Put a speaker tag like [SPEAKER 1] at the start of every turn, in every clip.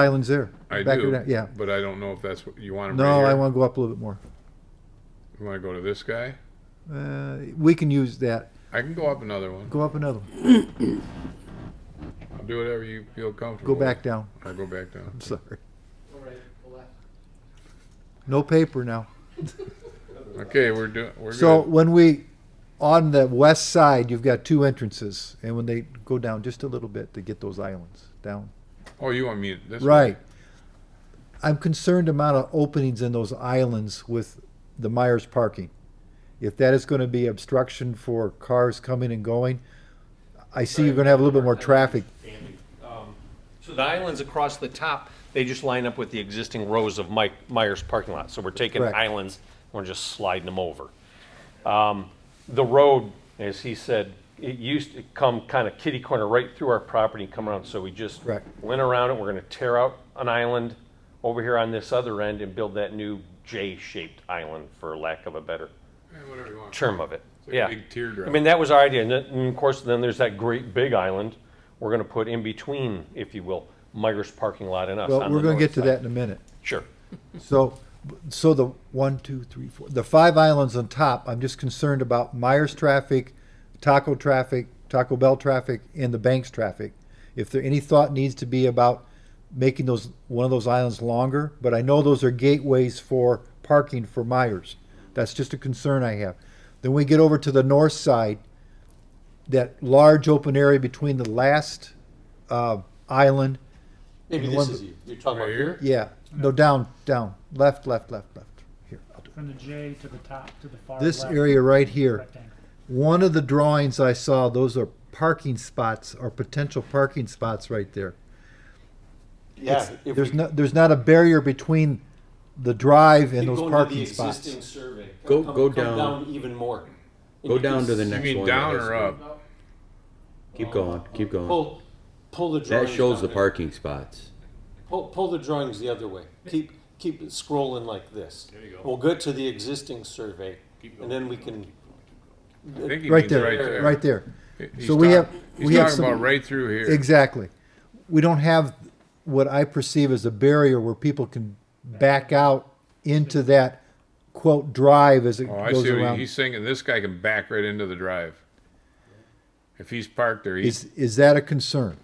[SPEAKER 1] islands there.
[SPEAKER 2] I
[SPEAKER 1] Back
[SPEAKER 2] do.
[SPEAKER 1] there, Yeah.
[SPEAKER 2] But I don't know if that's what you want them right
[SPEAKER 1] No,
[SPEAKER 2] here.
[SPEAKER 1] I want to go up a little bit more.
[SPEAKER 2] You want to go to this guy?
[SPEAKER 1] Uh, we can use that.
[SPEAKER 2] I can go up another one.
[SPEAKER 1] Go up another, one.
[SPEAKER 2] I'll do whatever you feel comfortable.
[SPEAKER 1] go back down.
[SPEAKER 2] with. I'll go back down.
[SPEAKER 1] I'm sorry.
[SPEAKER 3] All right, the left.
[SPEAKER 1] No paper now.
[SPEAKER 2] Okay, we're doing. We're
[SPEAKER 1] So
[SPEAKER 2] good.
[SPEAKER 1] when we, on the west side, you've got two entrances, and when they go down just a little bit to get those islands down.
[SPEAKER 2] Oh, you want me this? way?
[SPEAKER 1] Right. I'm concerned amount of openings in those islands with the Myers parking. If that is gonna be obstruction for cars coming and going, I see you're gonna have a little bit more traffic.
[SPEAKER 3] Andy, um, So the islands across the top, they just line up with the existing rows of Mike Myers parking lot. So we're taking
[SPEAKER 1] Correct.
[SPEAKER 3] islands, and we're just sliding them over. Um, The road, as he said, it used to come kind of kitty corner right through our property and come around. So we just
[SPEAKER 1] Correct.
[SPEAKER 3] went around it. We're going to tear out an island over here on this other end and build that new J-shaped island, for lack of a better
[SPEAKER 2] Eh, whatever you want.
[SPEAKER 3] term of it.
[SPEAKER 2] like a
[SPEAKER 3] yeah.
[SPEAKER 2] big teardrop.
[SPEAKER 3] I mean, that was our idea. And, then, and of course, then there's that great big island we're going to put in between, if you will, Meyer's parking lot and us.
[SPEAKER 1] Well,
[SPEAKER 3] on
[SPEAKER 1] we're
[SPEAKER 3] the
[SPEAKER 1] gonna get
[SPEAKER 3] north
[SPEAKER 1] to
[SPEAKER 3] side.
[SPEAKER 1] that in a minute.
[SPEAKER 3] Sure.
[SPEAKER 1] So, so the one, two, three, four, the five islands on top, I'm just concerned about Myers traffic, Taco traffic, Taco Bell traffic, and the Banks traffic. If there, any thought needs to be about making those, one of those islands longer, but I know those are gateways for parking for Myers. That's just a concern I have. Then we get over to the north side, that large open area between the last, uh, island,
[SPEAKER 3] Maybe
[SPEAKER 1] And this one- is
[SPEAKER 3] you. You're talking
[SPEAKER 2] Right here.
[SPEAKER 1] yeah, no, down, down, left, left, left, left, here, I'll do it.
[SPEAKER 4] From the J to the top, to the far left.
[SPEAKER 1] This area right here,
[SPEAKER 4] rectangle.
[SPEAKER 1] one of the drawings I saw, those are parking spots or potential parking spots right there.
[SPEAKER 3] Yeah.
[SPEAKER 1] There's not, there's not a barrier between the drive and those
[SPEAKER 3] go
[SPEAKER 1] parking spots.
[SPEAKER 3] survey.
[SPEAKER 5] Go- Come- go come down. down
[SPEAKER 3] even more.
[SPEAKER 5] Go down to the
[SPEAKER 2] You
[SPEAKER 5] next
[SPEAKER 2] mean
[SPEAKER 5] one.
[SPEAKER 2] down
[SPEAKER 5] Yes.
[SPEAKER 2] or up?
[SPEAKER 5] Keep going, keep going.
[SPEAKER 6] Pull, pull the
[SPEAKER 5] That
[SPEAKER 6] drawings.
[SPEAKER 5] shows the
[SPEAKER 6] down.
[SPEAKER 5] parking spots.
[SPEAKER 6] Pull, pull the drawings the other way. Keep, keep it scrolling like this. There you go. We'll get to the existing survey, and then we can.
[SPEAKER 2] I think he
[SPEAKER 1] Right
[SPEAKER 2] means right
[SPEAKER 1] there,
[SPEAKER 2] there.
[SPEAKER 1] right there.
[SPEAKER 2] He's
[SPEAKER 1] So we
[SPEAKER 2] talk-
[SPEAKER 1] have-
[SPEAKER 2] He's
[SPEAKER 1] we have
[SPEAKER 2] talking
[SPEAKER 1] some-
[SPEAKER 2] about right through here.
[SPEAKER 1] Exactly. We don't have what I perceive as a barrier where people can back out into that quote drive as it
[SPEAKER 2] Oh, I
[SPEAKER 1] goes
[SPEAKER 2] see. What he-
[SPEAKER 1] around.
[SPEAKER 2] he's thinking this guy can back right into the drive. If he's parked there, he's
[SPEAKER 1] Is, is that a concern?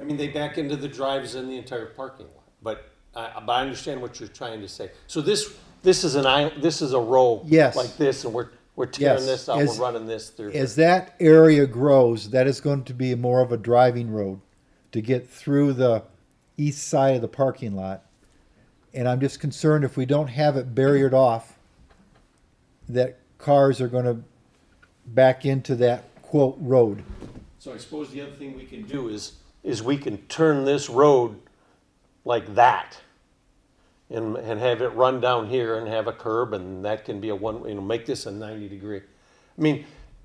[SPEAKER 6] I mean, they back into the drives and the entire parking lot. But I, but I understand what you're trying to say. So this, this is an aisle. This is a row.
[SPEAKER 1] Yes.
[SPEAKER 6] Like this, and we're we're tearing
[SPEAKER 1] Yes.
[SPEAKER 6] this out.
[SPEAKER 1] As-
[SPEAKER 6] we're running this through.
[SPEAKER 1] As that area grows, that is going to be more of a driving road to get through the east side of the parking lot. And I'm just concerned if we don't have it barriered off, that cars are gonna back into that quote road.
[SPEAKER 6] So I suppose the other thing we can do is, is we can turn this road like that and, and have it run down here and have a curb and that can be a one, you know, make this a ninety degree. I mean,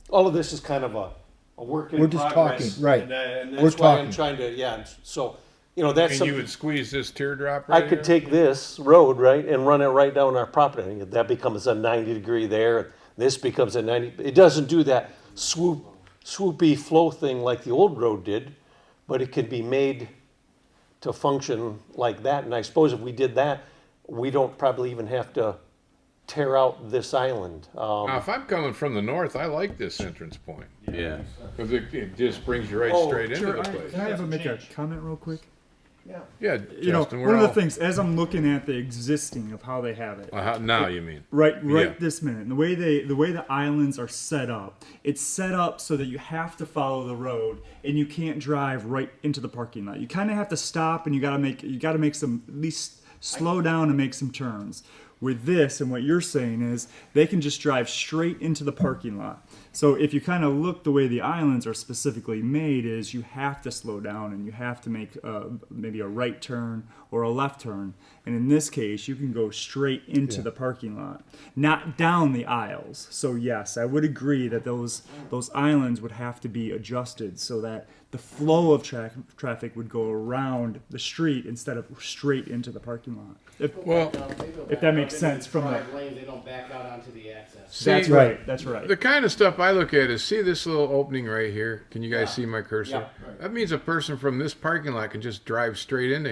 [SPEAKER 6] all of this is kind of a, a work
[SPEAKER 1] We're
[SPEAKER 6] in
[SPEAKER 1] just
[SPEAKER 6] progress.
[SPEAKER 1] talking, right.
[SPEAKER 6] And, I- and
[SPEAKER 1] We're
[SPEAKER 6] that's why I'm
[SPEAKER 1] talking.
[SPEAKER 6] trying to, yeah, so, you know, that's
[SPEAKER 2] and you
[SPEAKER 6] something,
[SPEAKER 2] would squeeze this teardrop.
[SPEAKER 6] I
[SPEAKER 2] Right
[SPEAKER 6] could
[SPEAKER 2] here?
[SPEAKER 6] take this road, right, and run it right down our property. And That becomes a ninety degree there, and this becomes a ninety, it doesn't do that swoop, swoopy flow thing like the old road did, but it could be made to function like that, and I suppose if we did that, we don't probably even have to tear out this island. Um,
[SPEAKER 2] Now, if I'm coming from the north, I like this entrance point
[SPEAKER 5] Yeah.
[SPEAKER 2] because it, it just brings you right
[SPEAKER 6] Oh,
[SPEAKER 2] straight into
[SPEAKER 7] Sure,
[SPEAKER 2] the
[SPEAKER 7] I-
[SPEAKER 2] place.
[SPEAKER 7] Can I have a make a comment real quick?
[SPEAKER 2] Yeah,
[SPEAKER 7] You know,
[SPEAKER 2] Justin,
[SPEAKER 7] one of
[SPEAKER 2] we're
[SPEAKER 7] the
[SPEAKER 2] all-
[SPEAKER 7] things as I'm looking at the existing of how they have it,
[SPEAKER 2] Uh, how- now you mean?
[SPEAKER 7] right, right
[SPEAKER 2] Yeah.
[SPEAKER 7] this minute, and the way they, the way the islands are set up, it's set up so that you have to follow the road and you can't drive right into the parking lot. You kind of have to stop and you got to make, you got to make some at least slow down and make some turns. With this and what you're saying is they can just drive straight into the parking lot. So if you kind of look the way the islands are specifically made is you have to slow down and you have to make uh, maybe a right turn or a left turn. And in this case, you can go straight into the parking lot, not down the aisles. So yes, I would agree that those those islands would have to be adjusted so that the flow of tra- traffic would go around the street instead of straight into the parking lot. If,
[SPEAKER 2] Well,
[SPEAKER 7] if that makes sense from the
[SPEAKER 8] Right lane, they don't back out onto the access.
[SPEAKER 2] see,
[SPEAKER 7] that's right, that's right.
[SPEAKER 2] The kind of stuff I I look at is see this little opening right here? Can you guys see my cursor? That means a person from this parking lot can just drive straight into